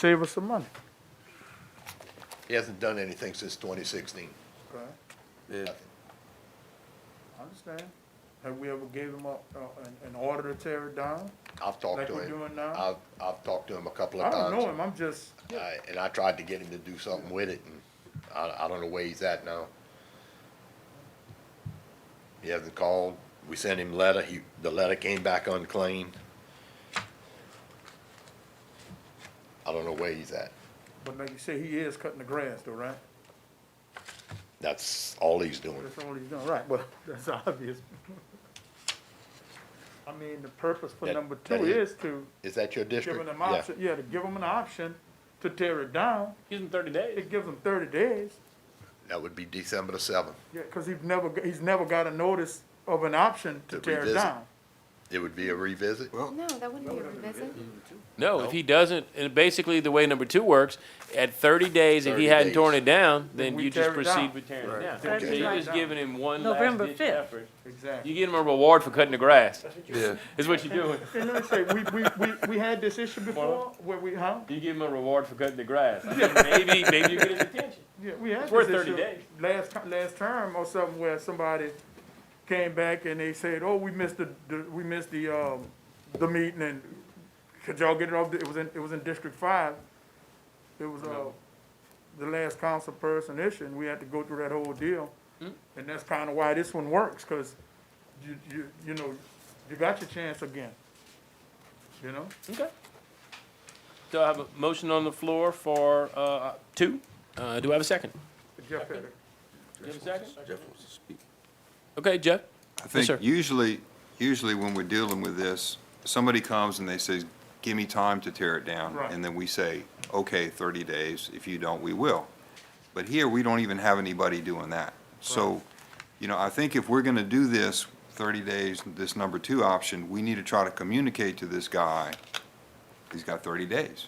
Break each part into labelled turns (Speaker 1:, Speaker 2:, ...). Speaker 1: save us some money.
Speaker 2: He hasn't done anything since twenty sixteen.
Speaker 1: Right, I understand. Have we ever gave him a, a- an, an order to tear it down?
Speaker 2: I've talked
Speaker 1: Like
Speaker 2: to
Speaker 1: we're
Speaker 2: him.
Speaker 1: doing now?
Speaker 2: I've, I've talked to him a couple
Speaker 1: I
Speaker 2: of
Speaker 1: don't know
Speaker 2: times.
Speaker 1: him, I'm just,
Speaker 2: I- And I tried to get him to do something with it and I, I don't know where he's at now. He hasn't called. We sent him letter. He, the letter came back unclaimed. I don't know where he's at.
Speaker 1: but like you say, he is cutting the grass though, right?
Speaker 2: That's all he's doing.
Speaker 1: That's all he's doing, right, well, that's obvious. I mean, the purpose for
Speaker 2: That-
Speaker 1: number
Speaker 2: that
Speaker 1: two
Speaker 2: is-
Speaker 1: is to
Speaker 2: Is that your
Speaker 1: give
Speaker 2: district?
Speaker 1: them an
Speaker 2: Yeah.
Speaker 1: option, yeah, to give them an option to tear it down.
Speaker 3: Give them thirty days.
Speaker 1: It gives them thirty days,
Speaker 2: That would be December the seventh.
Speaker 1: yeah, cause he's never, g- he's never got a notice of an option to
Speaker 2: To
Speaker 1: tear it
Speaker 2: revisit.
Speaker 1: down.
Speaker 2: It would be a revisit?
Speaker 4: No, that wouldn't be a revisit.
Speaker 3: No, if he doesn't, and basically the way number two works, at thirty days, if he hadn't
Speaker 2: 30 days.
Speaker 3: torn it down,
Speaker 1: Then
Speaker 3: then
Speaker 1: we
Speaker 3: you just
Speaker 1: tear it down.
Speaker 3: proceed with tearing it down.
Speaker 1: Tear
Speaker 3: So
Speaker 1: it
Speaker 3: you're
Speaker 1: down.
Speaker 3: just giving him one last
Speaker 5: November
Speaker 3: ditch
Speaker 5: 5th.
Speaker 3: effort.
Speaker 1: Exactly.
Speaker 3: You get him a reward for cutting the grass,
Speaker 6: Yeah,
Speaker 3: is what you're doing.
Speaker 1: And let me say, we, we, we, we had this issue before, where we, huh?
Speaker 3: You give him a reward for cutting the grass. I mean, Maybe, maybe you get his attention.
Speaker 1: Yeah, we had
Speaker 3: It's worth
Speaker 1: this
Speaker 3: 30
Speaker 1: issue
Speaker 3: days.
Speaker 1: Last, ti- last term or something where somebody came back and they said, oh, we missed the, the- we missed the, um, the meeting and could y'all get it off, the- it was in, it was in District Five. It was, uh, the last council person issue and we had to go through that whole deal.
Speaker 3: Hmm.
Speaker 1: And that's kinda why this one works, cause you, you, you know, you got your chance again, you know?
Speaker 3: Okay. Do I have a motion on the floor for, uh, two? Uh, do I have a second?
Speaker 1: Jeff Pettit.
Speaker 3: Do you have a second?
Speaker 6: Jeff wants to speak.
Speaker 3: Okay, Jeff?
Speaker 7: I
Speaker 3: sir.
Speaker 7: think usually, usually when we're dealing with this, somebody comes and they say, give me time to tear it down.
Speaker 1: Right.
Speaker 7: And then we say, okay, 30 days, if you don't, we will. But here, we don't even have anybody doing that. So, you know, I think if we're going to do this 30 days, this number two option, we need to try to communicate to this guy, he's got 30 days.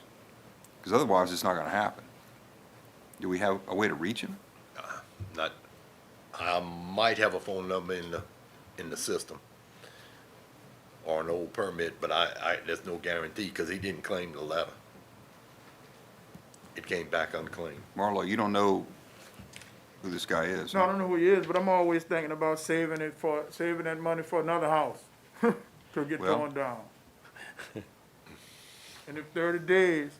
Speaker 7: Because otherwise, it's not going to happen. Do we have a way to reach him?
Speaker 2: Not, I might have a phone number in the, in the system. Or an old permit, but I, I, there's no guarantee, cause he didn't claim the letter. It came back unclaimed.
Speaker 7: Marlo, you don't know who this guy is.
Speaker 1: No, I don't know who he is, but I'm always thinking about saving it for, saving that money for another house to get
Speaker 7: Well-
Speaker 1: torn down. And if thirty days,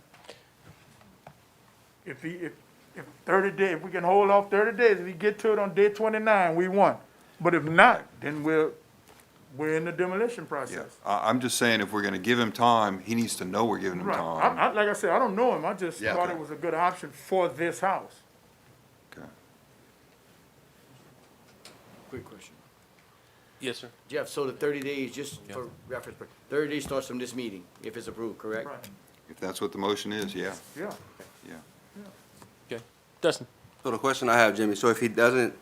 Speaker 1: if he, if, if thirty day, if we can hold off thirty days, if he get to it on day twenty-nine, we won. But if not, then we're, we're in the demolition
Speaker 7: Yeah,
Speaker 1: process.
Speaker 7: I, I'm just saying, if we're gonna give him time, he needs to know we're giving him
Speaker 1: Right, I,
Speaker 7: time.
Speaker 1: I, like I said, I don't know him, I just
Speaker 2: Yeah.
Speaker 1: thought it was a good option for this house.
Speaker 7: Okay.
Speaker 8: Quick question.
Speaker 3: Yes, sir.
Speaker 8: Jeff, so the thirty days, just for reference, but thirty days starts from this meeting, if it's approved, correct?
Speaker 1: Right,
Speaker 7: If that's what the motion is, yeah,
Speaker 1: yeah.
Speaker 7: yeah.
Speaker 3: Okay. Dustin?
Speaker 6: so the question I have, Jimmy, so if he doesn't,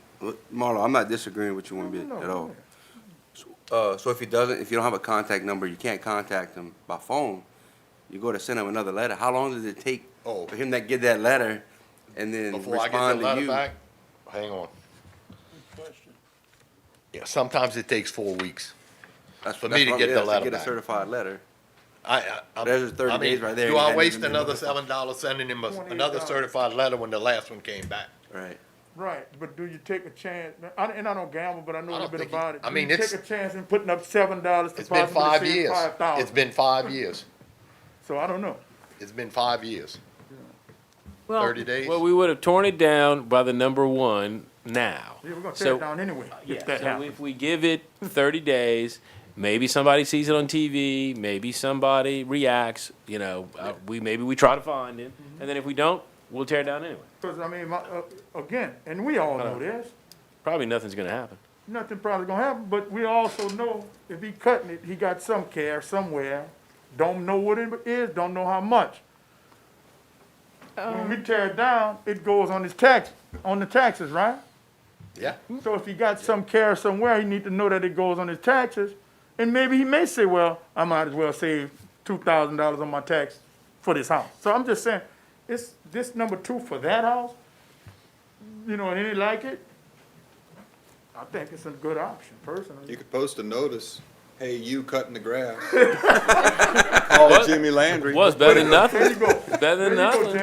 Speaker 6: Marlo, I'm not disagreeing with you one bit
Speaker 1: No,
Speaker 6: at
Speaker 1: no,
Speaker 6: all.
Speaker 1: no.
Speaker 6: Uh, so if he doesn't, if you don't have a contact number, you can't contact him by phone, you go to send him another letter, how long does it take
Speaker 2: Oh.
Speaker 6: for him to get that letter and then
Speaker 2: Before I get the
Speaker 6: respond to
Speaker 2: letter
Speaker 6: you?
Speaker 2: back, hang on. Yeah, sometimes it takes four weeks.
Speaker 6: That's-
Speaker 2: for
Speaker 6: that's
Speaker 2: me to
Speaker 6: what I'm-
Speaker 2: get the
Speaker 6: yeah,
Speaker 2: letter
Speaker 6: Get a
Speaker 2: back.
Speaker 6: certified letter.
Speaker 2: I, I. I'm-
Speaker 6: There's 30
Speaker 2: I mean,
Speaker 6: days right there.
Speaker 2: Do
Speaker 6: You
Speaker 2: I
Speaker 6: hadn't
Speaker 2: waste
Speaker 6: even-
Speaker 2: another seven dollars sending him a-
Speaker 1: $28.
Speaker 2: another certified letter when the last one came back?
Speaker 6: Right.
Speaker 1: Right, but do you take a chance, I, and I don't gamble, but I know
Speaker 2: I
Speaker 1: a little
Speaker 2: don't
Speaker 1: bit
Speaker 2: think you-
Speaker 1: about it.
Speaker 2: I
Speaker 1: Do
Speaker 2: mean,
Speaker 1: you
Speaker 2: it's-
Speaker 1: Take a chance in putting up seven dollars to
Speaker 2: It's been five
Speaker 1: possibly save
Speaker 2: years.
Speaker 1: five
Speaker 2: It's
Speaker 1: thousand,
Speaker 2: been five years.
Speaker 1: so I don't know.
Speaker 2: It's been five years.
Speaker 5: Well,
Speaker 2: Thirty days.
Speaker 3: Well, we would have torn it down by the number one now.
Speaker 1: Yeah, we're gonna tear
Speaker 3: So- uh,
Speaker 1: it down anyway, if
Speaker 3: Yeah,
Speaker 1: that
Speaker 3: so
Speaker 1: happens.
Speaker 3: if we give it thirty days, maybe somebody sees it on TV, maybe somebody reacts, you know, uh, we, maybe we try to find him,
Speaker 1: Mm-hmm.
Speaker 3: and then if we don't, we'll tear it down anyway.
Speaker 1: Cause I mean, my, uh, again, and we
Speaker 3: Uh-huh.
Speaker 1: all know this,
Speaker 3: Probably nothing's gonna happen.
Speaker 1: nothing probably gonna happen, but we also know if he cutting it, he got some care somewhere. Don't know what it is, don't know how much. When we tear it down, it goes on his tax, on the taxes, right?
Speaker 2: Yeah.
Speaker 1: So if he got some care somewhere, he need to know that it goes on his taxes. And maybe he may say, well, I might as well save two thousand dollars on my tax for this house. So I'm just saying, it's this number two for that house, you know, and any like it, I think it's a good option personally.
Speaker 7: could post a notice Hey, you cutting the grass. Call Jimmy Landry.
Speaker 3: Was better than nothing.
Speaker 1: There you go.
Speaker 3: Better
Speaker 1: There you
Speaker 3: than
Speaker 1: go,
Speaker 3: nothing.